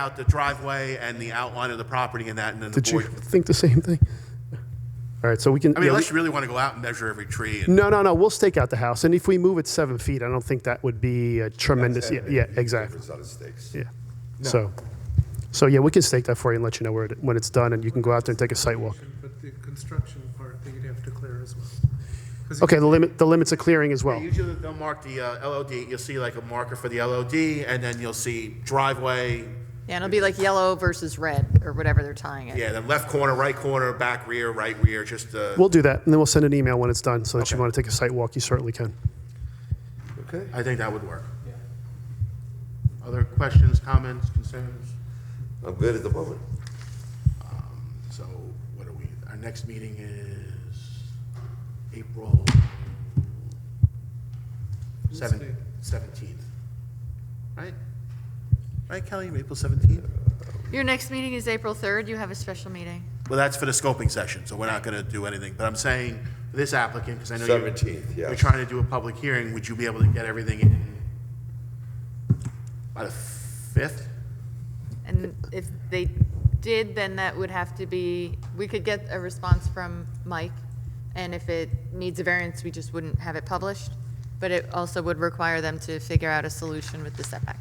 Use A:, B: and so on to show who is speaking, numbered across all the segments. A: out the driveway and the outline of the property and that, and then the
B: Did you
A: board.
B: think the same thing? All right, so we can.
A: I mean,
B: yeah, we-
A: unless you really want to go out and measure every tree and
B: No, no, no, we'll stake out the house, and if we move it seven feet, I don't think that would be a tremendous, yeah, yeah, exactly,
C: Different set of stakes.
B: yeah. So, so yeah, we can stake that for you and let you know where, it- when it's done, and you can go out there and take a site walk.
D: But the construction part, that you'd have to clear as well. 'Cause
B: Okay, the limit, the limits of clearing as well.
A: usually they'll mark the uh, LOD, you'll see like a marker for the LOD, and then you'll see driveway,
E: Yeah, it'll be like yellow versus red, or whatever they're tying it.
A: yeah, the left corner, right corner, back rear, right rear, just uh
B: We'll do that, and then we'll send an email when it's done, so that you want to take a site walk, you certainly can.
C: Okay.
A: I think that would work. Other questions, comments, concerns?
C: I'm good at the moment.
A: So what are we, our next meeting is April seven- 17th, right? Right, Kelly, April 17th?
E: Your next meeting is April 3rd, you have a special meeting.
A: Well, that's for the scoping session, so we're not going to do anything. But I'm saying this applicant, because I know you're.
C: 17th, yes.
A: We're trying to do a public hearing. Would you be able to get everything in by the 5th?
E: And if they did, then that would have to be, we could get a response from Mike, and if it needs a variance, we just wouldn't have it published, but it also would require them to figure out a solution with the setback.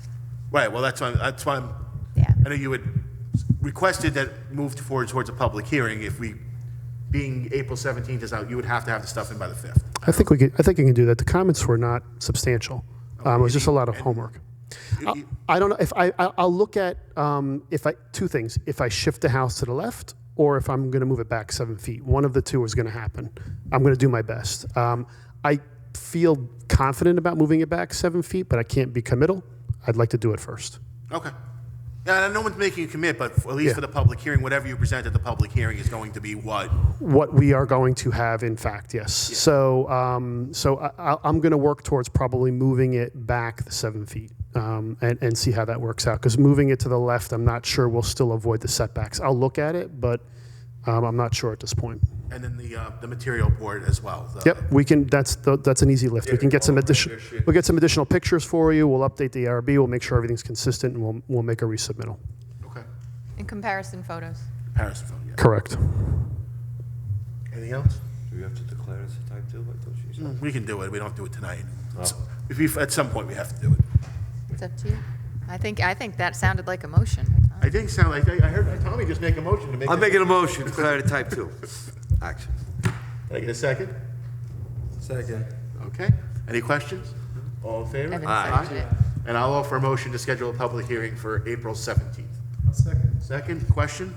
A: Right, well, that's why, that's why I'm.
E: Yeah.
A: I know you had requested that moved forward towards a public hearing. If we, being April 17th is out, you would have to have the stuff in by the 5th.
B: I think we could, I think we can do that. The comments were not substantial. Um, it was just a lot of homework. I- I don't know, if I, I- I'll look at, um, if I, two things, if I shift the house to the left or if I'm gonna move it back seven feet, one of the two is gonna happen. I'm gonna do my best. Um, I feel confident about moving it back seven feet, but I can't be committal. I'd like to do it first.
A: Okay. Yeah, and no one's making you commit, but at least
B: Yeah.
A: for the public hearing, whatever you present at the public hearing is going to be what?
B: what we are going to have, in fact, yes. So, um, so I, I- I'm going to work towards probably moving it back the seven feet um, and, and see how that works out. Because moving it to the left, I'm not sure we'll still avoid the setbacks. I'll look at it, but um, I'm not sure at this point.
A: And then the, uh, the material board as well. the-
B: Yep, we can. That's the, that's an easy lift. We can get some additional. We'll get some additional pictures for you. We'll update the ARB. We'll make sure everything's consistent, and we'll we'll make a resubmittal.
A: Okay.
E: In comparison photos.
A: Comparison phone, yeah.
B: Correct.
A: Anything else?
C: Do we have to declare this a type two? I thought she said.
A: Mm, We can do it. We don't have to do it tonight. It's- If we, at some point, we have to do it.
E: It's up to you. I think, I think that sounded like a motion.
A: I think sound like, I I heard Tommy just make a motion to make.
C: I'm
A: it-
C: making a motion, to declare it a type two. Action.
A: Can I get a second?
C: Second.
A: Okay. Any questions? All in favor?
E: Evan
C: Aye.
E: seconded it.
A: And I'll offer a motion to schedule a public hearing for April 17th.
D: I'll second.
A: Second question?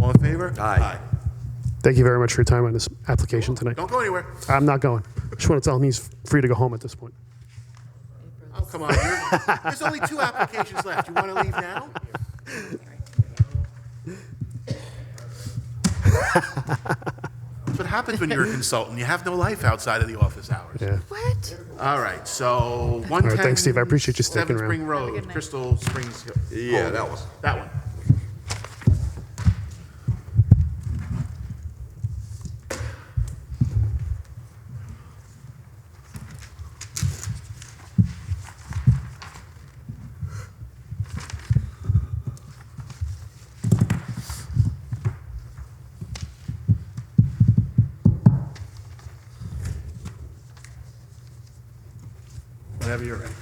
A: All in favor?
C: Aye.
B: Thank you very much for your time on this application tonight.
A: Don't go anywhere.
B: I'm not going. Just want to tell him he's free to go home at this point.
A: Oh, come on. You're- There's only two applications left. You want to leave now? That's what happens when you're a consultant. You have no life outside of the office hours.
B: Yeah.
E: What?
A: All right, so 110.
B: thanks, Steve. I appreciate you sticking
A: Seven
B: around.
A: Spring
E: Have a good
A: Road,
E: night.
A: Crystal Springs.
C: Yeah,
A: Home.
C: that was-
A: That one. Whenever you're ready.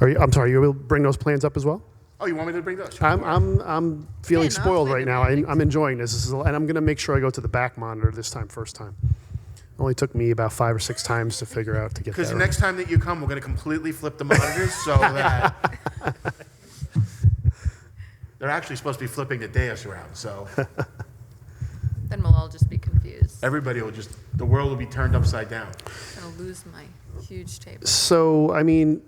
B: Are you, I'm sorry, you will bring those plans up as well?
A: Oh, you want me to bring those?
B: I'm, I'm, I'm feeling
E: Yeah, no, I'll
B: spoiled
E: play
B: right
E: the
B: now. I, I'm enjoying this. this is, and I'm going to make sure I go to the back monitor this time, first time. Only took me about five or six times to figure out to get
A: Because
B: that.
A: the
B: Right.
A: next time that you come, we're going to completely flip the monitors so that. They're actually supposed to be flipping the dais around, so
E: Then we'll all just be confused.
A: everybody will just, the world will be turned upside down.
E: I'm gonna lose my huge table.
B: So, I mean,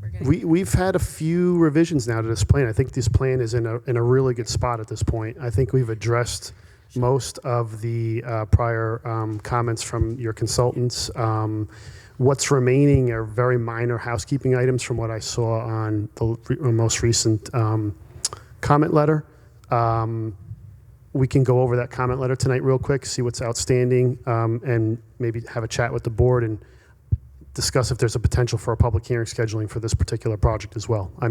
E: We're gonna-
B: we, we've had a few revisions now to this plan. I think this plan is in a, in a really good spot at this point. I think we've addressed most of the uh, prior um, comments from your consultants. Um, what's remaining are very minor housekeeping items from what I saw on the re- uh, most recent um, comment letter. Um, we can go over that comment letter tonight real quick, see what's outstanding, um, and maybe have a chat with the board and discuss if there's a potential for a public hearing scheduling for this particular project as well. I mean.